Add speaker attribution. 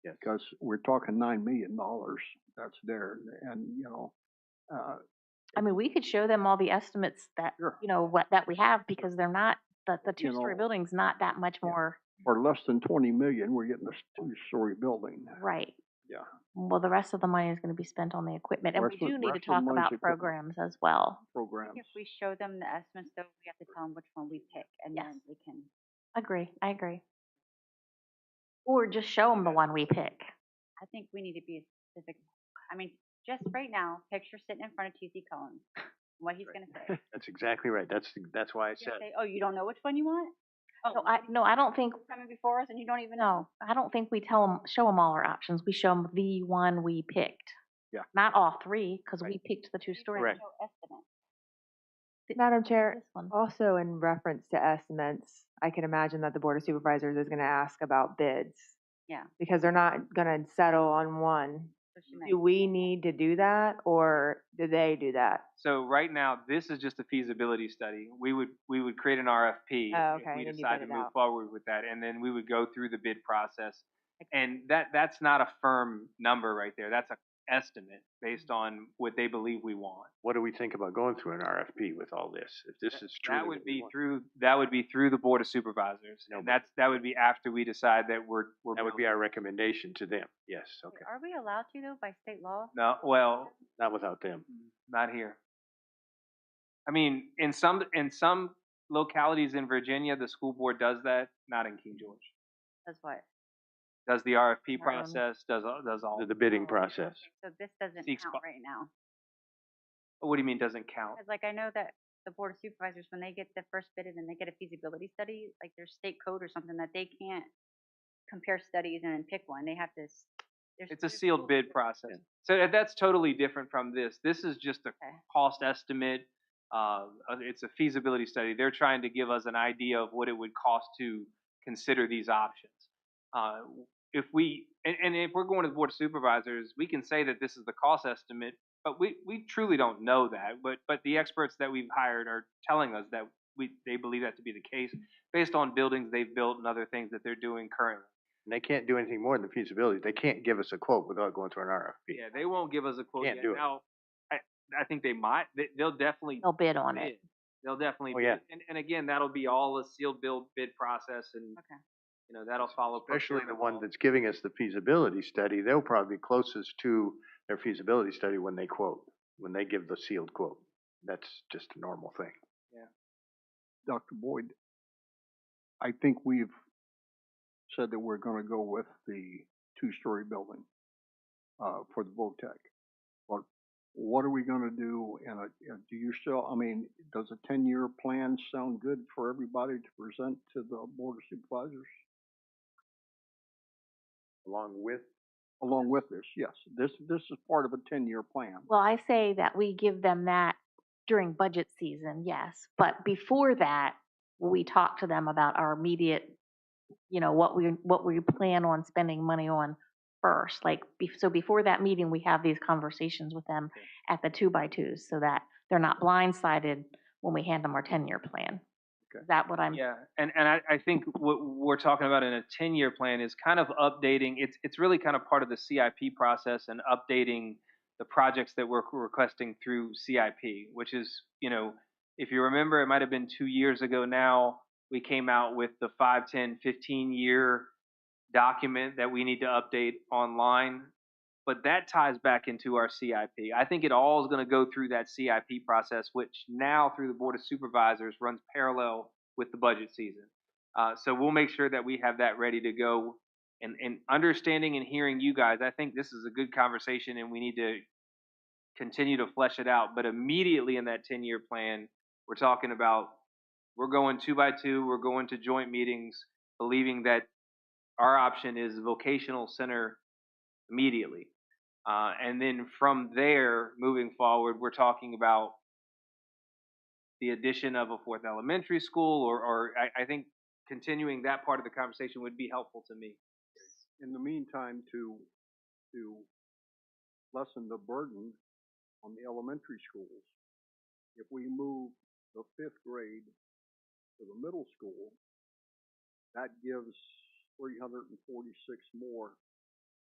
Speaker 1: Yes.
Speaker 2: because we're talking nine million dollars that's there, and you know, uh,
Speaker 3: I mean, we could show them all the estimates that,
Speaker 2: Sure.
Speaker 3: you know, what, that we have, because they're not, the, the
Speaker 2: You
Speaker 3: two-story
Speaker 2: know-
Speaker 3: building's not that much
Speaker 2: Yeah.
Speaker 3: more,
Speaker 2: for less than twenty million, we're getting this two-story building.
Speaker 3: right.
Speaker 2: Yeah.
Speaker 3: Well, the rest of the money is gonna be spent on the equipment, and we
Speaker 2: Rest of-
Speaker 3: do
Speaker 2: rest
Speaker 3: need to
Speaker 2: of the
Speaker 3: talk
Speaker 2: money's
Speaker 3: about
Speaker 2: equipment.
Speaker 3: programs as well.
Speaker 2: Programs.
Speaker 4: If we show them the estimates, though, we have to tell them which one we pick, and
Speaker 3: Yes.
Speaker 4: then we can.
Speaker 3: Agree, I agree. Or just show them the one we pick.
Speaker 4: I think we need to be specific. I mean, just right now, picture sitting in front of TC Cohen, what he's gonna say.
Speaker 1: That's exactly right. That's, that's why I
Speaker 4: He's gonna
Speaker 1: said,
Speaker 4: say, oh, you don't know which one you want? Oh,
Speaker 3: No, I, no, I don't think,
Speaker 4: it's coming before us and you don't even know.
Speaker 3: no, I don't think we tell them, show them all our options, we show them the one we picked.
Speaker 2: Yeah.
Speaker 3: Not all three, because
Speaker 1: Right.
Speaker 3: we picked the two-story.
Speaker 1: Correct.
Speaker 4: No estimate.
Speaker 5: Madam Chair, oh,
Speaker 3: This one.
Speaker 5: also in reference to estimates, I can imagine that the Board of Supervisors is gonna ask about bids.
Speaker 4: Yeah.
Speaker 5: Because they're not gonna settle on one.
Speaker 4: So she might-
Speaker 5: Do we need to do that, or do they do that?
Speaker 6: So right now, this is just a feasibility study. We would, we would create an RFP.
Speaker 5: Oh,
Speaker 6: if
Speaker 5: okay,
Speaker 6: We
Speaker 5: then you
Speaker 6: decide
Speaker 5: bid
Speaker 6: to
Speaker 5: it
Speaker 6: move
Speaker 5: out.
Speaker 6: forward with that, and then we would go through the bid process. And that, that's not a firm number right there. That's a estimate based
Speaker 5: Mm-hmm.
Speaker 6: on what they believe we want.
Speaker 1: what do we think about going through an RFP with all this? If this is true.
Speaker 6: That would be through, that would be through the Board of Supervisors.
Speaker 1: No,
Speaker 6: And
Speaker 1: but-
Speaker 6: that's, that would be after we decide that we're, we're.
Speaker 1: That would be our recommendation to them. Yes, okay.
Speaker 4: Wait, Are we allowed to though by state law?
Speaker 6: No, well,
Speaker 1: Not without them.
Speaker 6: Mm, not here. I mean, in some, in some localities in Virginia, the school board does that, not in King George.
Speaker 4: That's what.
Speaker 6: does the RFP
Speaker 3: Or, um,
Speaker 6: process, does, all- does all,
Speaker 1: The- The bidding
Speaker 4: Oh,
Speaker 1: process.
Speaker 4: okay, So this doesn't
Speaker 6: Seeks
Speaker 4: count
Speaker 6: bu-
Speaker 4: right now.
Speaker 6: what do you mean doesn't count?
Speaker 4: Cause like I know that the board of supervisors, when they get the first bid and then they get a feasibility study, like there's state code or something that they can't compare studies and then pick one. They have to. s- there's-
Speaker 6: It's a
Speaker 4: there's
Speaker 6: sealed
Speaker 4: rules
Speaker 6: bid
Speaker 4: for-
Speaker 6: process. So that- that's totally different from this. This is just a
Speaker 4: Okay.
Speaker 6: cost estimate. Uh, uh, it's a feasibility study. They're trying to give us an idea of what it would cost to consider these options. Uh, if we, and, and if we're going to the board of supervisors, we can say that this is the cost estimate, but we, we truly don't know that. But, but the experts that we've hired are telling us that we, they believe that to be the case based on buildings they've built and other things that they're doing currently.
Speaker 1: And they can't do anything more than feasibility. They can't give us a quote without going through an RFP.
Speaker 6: Yeah, they won't give us a quote
Speaker 1: Can't
Speaker 6: yet.
Speaker 1: do it.
Speaker 6: Now, I, I think they might, they, they'll definitely
Speaker 3: They'll bid on it.
Speaker 6: bid. They'll definitely
Speaker 1: Oh, yeah.
Speaker 6: bid. And, and again, that'll be all a sealed bill bid process and,
Speaker 4: Okay.
Speaker 6: you know, that'll follow.
Speaker 1: Especially the
Speaker 6: procurement
Speaker 1: one
Speaker 6: law.
Speaker 1: that's giving us the feasibility study, they'll probably be closest to their feasibility study when they quote, when they give the sealed quote. That's just a normal thing.
Speaker 2: Dr. Boyd, I think we've said that we're gonna go with the two-story building, uh, for the VOTEC. But what are we gonna do, and, uh, do you still, I mean, does a ten-year plan sound good for everybody to present to the Board of Supervisors?
Speaker 1: Along with,
Speaker 2: Along with this, yes, this, this is part of a ten-year plan.
Speaker 3: Well, I say that we give them that during budget season, yes, but before that, we talk to them about our immediate, you know, what we, what we plan on spending money on first, like, be- so before that meeting, we have these conversations with them at the two-by-twos, so that they're not blindsided when we hand them our ten-year plan.
Speaker 2: Okay.
Speaker 3: Is that what I'm,
Speaker 6: Yeah, and, and I, I think what we're talking about in a ten-year plan is kind of updating, it's, it's really kind of part of the CIP process and updating the projects that we're requesting through CIP, which is, you know, if you remember, it might have been two years ago now, we came out with the five, ten, fifteen-year document that we need to update online. But that ties back into our CIP. I think it all is gonna go through that CIP process, which now through the Board of Supervisors runs parallel with the budget season. Uh, so we'll make sure that we have that ready to go. And, and understanding and hearing you guys, I think this is a good conversation and we need to continue to flesh it out. But immediately in that 10 year plan, we're talking about we're going two by two, we're going to joint meetings, believing that our option is vocational center immediately. Uh, and then from there, moving forward, we're talking about the addition of a fourth elementary school, or, or I, I think continuing that part of the conversation would be helpful to me.
Speaker 2: in the meantime, to, to lessen the burden on the elementary schools, if we move the fifth grade to the middle school, that gives three hundred and forty-six more